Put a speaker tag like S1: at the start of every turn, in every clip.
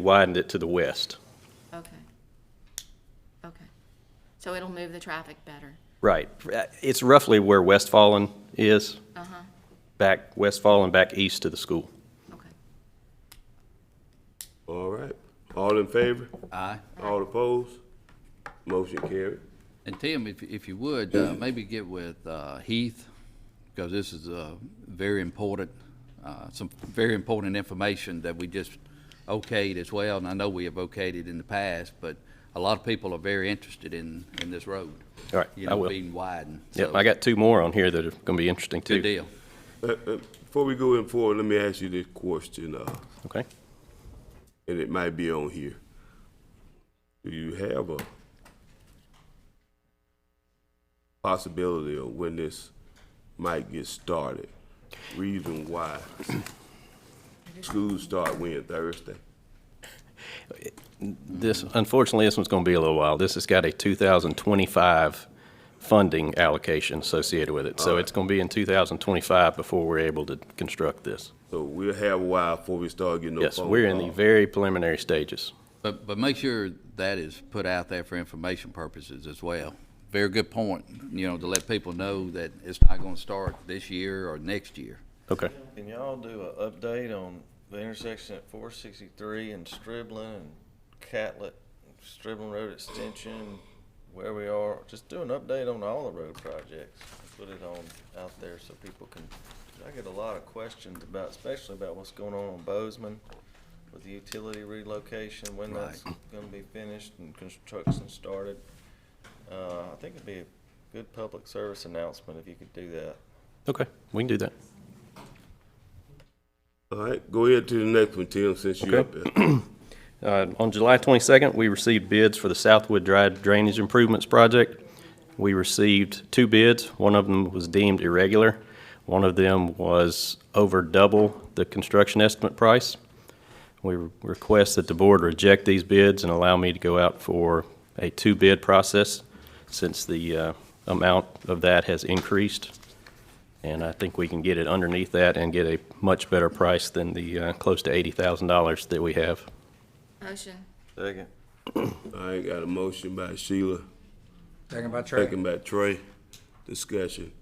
S1: widened it to the west.
S2: Okay. Okay. So it'll move the traffic better.
S1: Right. It's roughly where Westfallen is,
S2: Uh-huh,
S1: back Westfallen, back east to the school.
S2: okay.
S3: All right, all in favor?
S4: Aye.
S3: All opposed? Motion carried.
S4: And Tim, if, if you would, uh, maybe get with uh, Heath, because this is uh, very important, uh, some very important information that we just okayed as well. And I know we have okayed it in the past, but a lot of people are very interested in, in this road.
S1: All right,
S4: You
S1: I
S4: know,
S1: will.
S4: being widened.
S1: Yep,
S4: So,
S1: I got two more on here that are going to be interesting too.
S4: Good deal.
S3: Uh, uh, Before we go in forward, let me ask you this question, uh,
S1: Okay.
S3: and it might be on here. Do you have a possibility of when this might get started? Reason why? Schools start when, Thursday?
S1: This, unfortunately, this one's going to be a little while. This has got a 2025 funding allocation associated with it. So it's going to be in 2025 before we're able to construct this.
S3: So we'll have a while before we start getting no
S1: Yes,
S3: phone
S1: we're in the
S3: calls.
S1: very preliminary stages.
S4: But, but make sure that is put out there for information purposes as well. Very good point, you know, to let people know that it's not going to start this year or next year.
S1: Okay.
S5: Can y'all do a update on the intersection at four sixty-three and Striblin and Catlett, Striblin Road Extension, where we are? Just do an update on all the road projects. Put it on, out there so people can, I get a lot of questions about, especially about what's going on on Bozeman with the utility relocation, when that's gonna be finished and construction started. Uh, I think it'd be a good public service announcement if you could do that.
S1: Okay, we can do that.
S3: All right, go ahead to the next one, Tim, since you're up
S1: Okay.
S3: there.
S1: Uh, On July 22nd, we received bids for the Southwood Drive Drainage Improvements Project. We received two bids. One of them was deemed irregular. One of them was over double the construction estimate price. We request that the board reject these bids and allow me to go out for a two-bid process since the uh, amount of that has increased. And I think we can get it underneath that and get a much better price than the uh, close to $80,000 that we have.
S2: Motion,
S5: Second.
S3: I ain't got a motion by Sheila,
S6: Second by Trey.
S3: second by Trey. Discussion.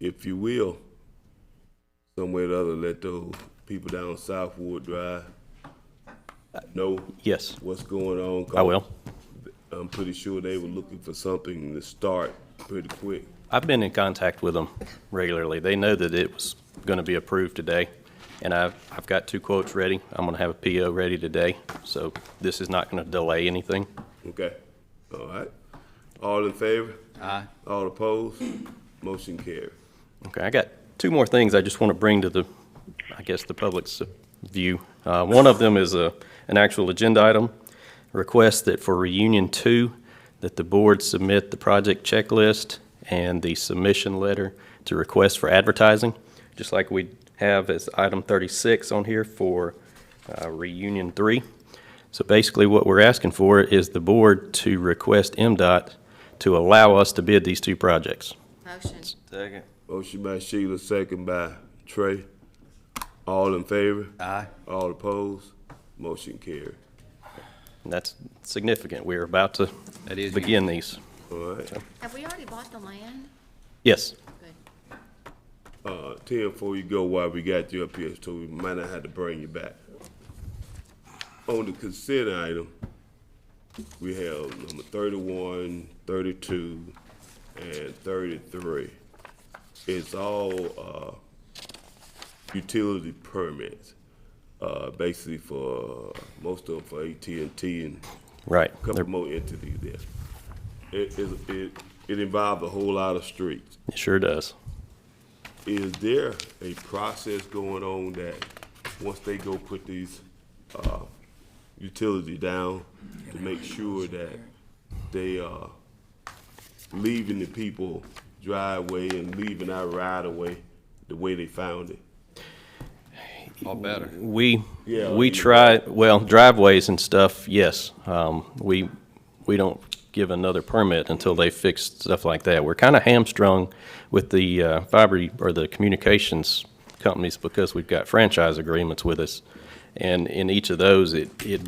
S3: If you will, some way or the other, let those people down Southwood Drive know
S1: Yes,
S3: what's going on. 'cause
S1: I will.
S3: I'm pretty sure they were looking for something to start pretty quick.
S1: I've been in contact with them regularly. They know that it was going to be approved today, and I've, I've got two quotes ready. I'm going to have a PO ready today, so this is not going to delay anything.
S3: Okay? All right? All in favor?
S4: Aye.
S3: All opposed? Motion carried.
S1: Okay, I got two more things I just want to bring to the, I guess, the public's view. Uh, One of them is a, an actual agenda item, request that for reunion two, that the board submit the project checklist and the submission letter to request for advertising, just like we have as item 36 on here for uh, reunion three. So basically, what we're asking for is the board to request MDOT to allow us to bid these two projects.
S2: motion,
S5: Second.
S3: Motion by Sheila, second by Trey. All in favor?
S4: Aye.
S3: All opposed? Motion carried.
S1: And That's significant. We're about to
S4: That is
S1: begin these.
S3: All right.
S2: have we already bought the land?
S1: Yes,
S2: Good.
S3: Uh, Tim, before you go, while we got you up here, so we might not have to bring you back. On the consent item, we have number 31, 32, and thirty-three. It's all, uh, utility permits, uh, basically for, most of them for AT&T and
S1: right.
S3: couple more entities there. It, it, it, it involved a whole lot of streets.
S1: It sure does.
S3: Is there a process going on that, once they go put these, uh, utility down, to make sure that they are leaving the people driveway and leaving our right of way the way they found it?
S4: Or better.
S1: We,
S3: Yeah,
S1: we
S3: you-
S1: try, well, driveways and stuff, yes. Um, We, we don't give another permit until they fix stuff like that. We're kind of hamstrung with the uh, fiber or the communications companies because we've got franchise agreements with us. And in each of those, it, it